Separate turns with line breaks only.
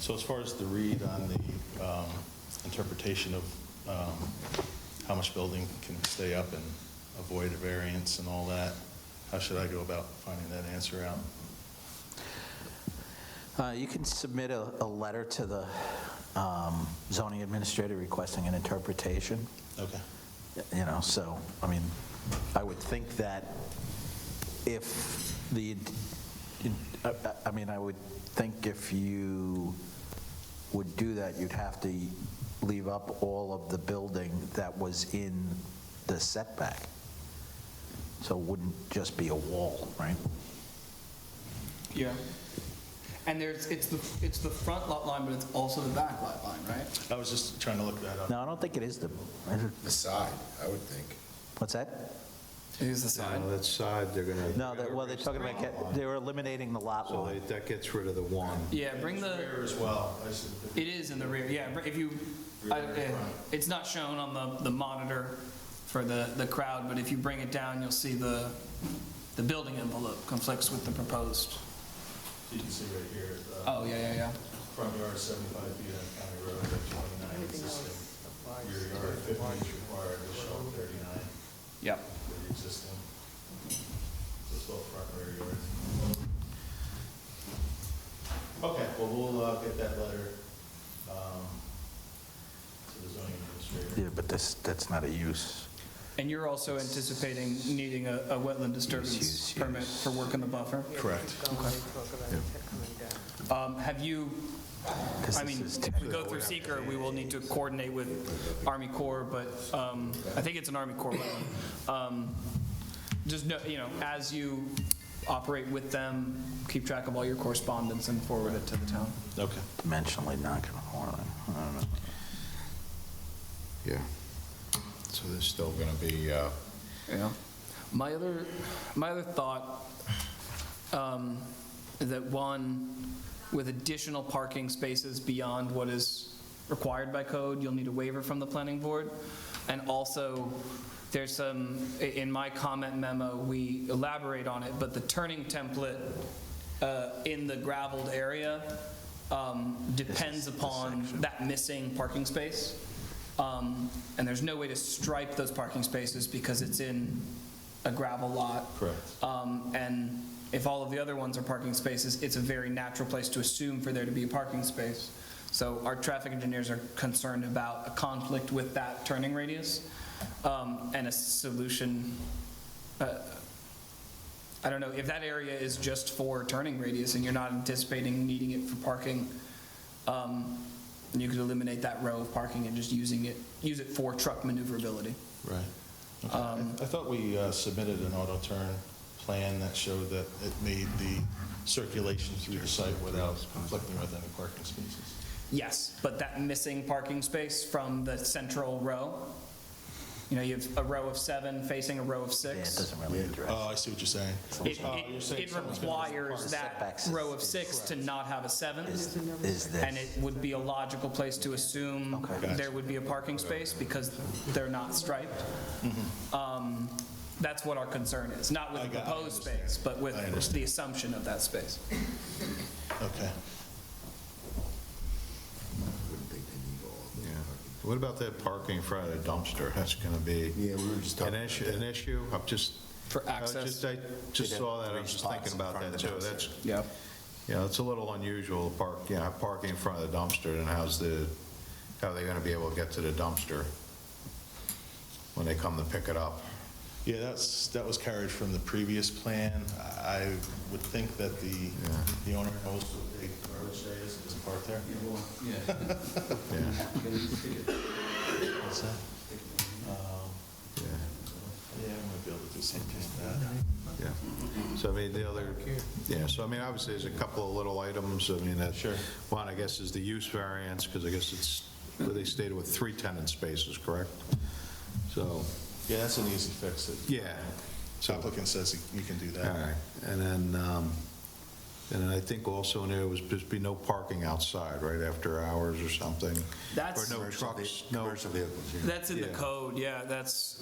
So as far as the read on the um, interpretation of um, how much building can stay up and avoid a variance and all that, how should I go about finding that answer out?
Uh, You can submit a, a letter to the um, zoning administrator requesting an interpretation,
Okay.
you know, so, I mean, I would think that if the, I- I- I mean, I would think if you would do that, you'd have to leave up all of the building that was in the setback. So it wouldn't just be a wall, right?
Yeah. And there's, it's the, it's the front lot line, but it's also the back lot line, right?
I was just trying to look that up.
No, I don't think it is the,
The side, I would think.
what's that?
It is the side.
On that side, they're gonna.
No, that- well, they're talking about, get- they were eliminating the lot
So
line.
they- that gets rid of the one.
Yeah, bring the,
Rear as well. I should-
it is in the rear, yeah, br- if you, I- eh, it's not shown on the, the monitor for the, the crowd, but if you bring it down, you'll see the, the building envelope conflicts with the proposed.
You can see right here, the
Oh, yeah, yeah, yeah.
front yard is 75 feet on County Road, but 29 existing. Rear yard 50 is required, we show 39
Yep.
for the existing. So it's all front rear yard. Okay, well, we'll uh, get that letter um, to the zoning administrator.
Yeah, but that's, that's not a use.
And you're also anticipating needing a, a wetland disturbance
Yes, yes,
permit
yes.
for work in the buffer?
Correct.
Um, Have you,
'Cause
I
this
mean,
is
if we go through seeker, we will need to coordinate with Army Corps, but um, I think it's an Army Corps wetland. Um, Just know, you know, as you operate with them, keep track of all your correspondence and forward it to the town.
Okay.
Dimensionally non-conforming. I don't know.
Yeah. So there's still going to be, uh,
Yeah. My other, my other thought, um, that one, with additional parking spaces beyond what is required by code, you'll need a waiver from the planning board. And also, there's some, i- in my comment memo, we elaborate on it, but the turning template uh, in the gravelled area um, depends upon that missing parking space. Um, And there's no way to stripe those parking spaces because it's in a gravel lot.
Correct.
Um, And if all of the other ones are parking spaces, it's a very natural place to assume for there to be a parking space. So our traffic engineers are concerned about a conflict with that turning radius um, and a solution. uh, I don't know, if that area is just for turning radius and you're not anticipating needing it for parking, um, you could eliminate that row of parking and just using it, use it for truck maneuverability.
Right. Okay. I I thought we uh, submitted an auto turn plan that showed that it made the circulation through the site without conflicting with any parking spaces.
Yes, but that missing parking space from the central row, you know, you have a row of seven facing a row of
Yeah, it
six.
doesn't really address.
Oh, I see what you're saying.
It-
Oh, you're
It
saying
it
someone's gonna-
requires that
Setbacks is-
row of six to not have a seventh,
Is is
and it
this,
would be a logical place to assume
Okay.
Gotcha.
there would be a parking space because they're not striped.
Mm-hmm.
Um, That's what our concern is, not with
I
the
got- I
proposed
understand.
space, but with
I understand.
the assumption of that space.
Okay.
Yeah. What about that parking in front of the dumpster? That's gonna be
yeah, we were just
an
talking.
issue, an issue? I'm just.
For
I was
access.
Oh, just- I just saw that, I was just thinking about that too. That's,
Yeah.
you know, it's a little unusual, to park, you know, parking in front of the dumpster, and how's the, how are they gonna be able to get to the dumpster when they come to pick it up?
Yeah, that's, that was carried from the previous plan. I would think that the, the owner knows what the road say is, it's parked there.
Yeah,
What's that? Um,
yeah.
Yeah, I might be able to do something with that.
Yeah, so I mean, the other, yeah, so I mean, obviously, there's a couple of little items, I mean, that.
Sure.
One, I guess, is the use variance, because I guess it's, they stated with three tenant spaces, correct? So,
Yeah, that's an easy fix. The
yeah, so, all
Applicant says you can do that.
right, and then, um, and then I think also in there was just be no parking outside, right, after hours or something?
That's-
Or no
Commercial ve-
trucks, no,
Commercial vehicles, yeah.
That's in the
Yeah.
code, yeah, that's,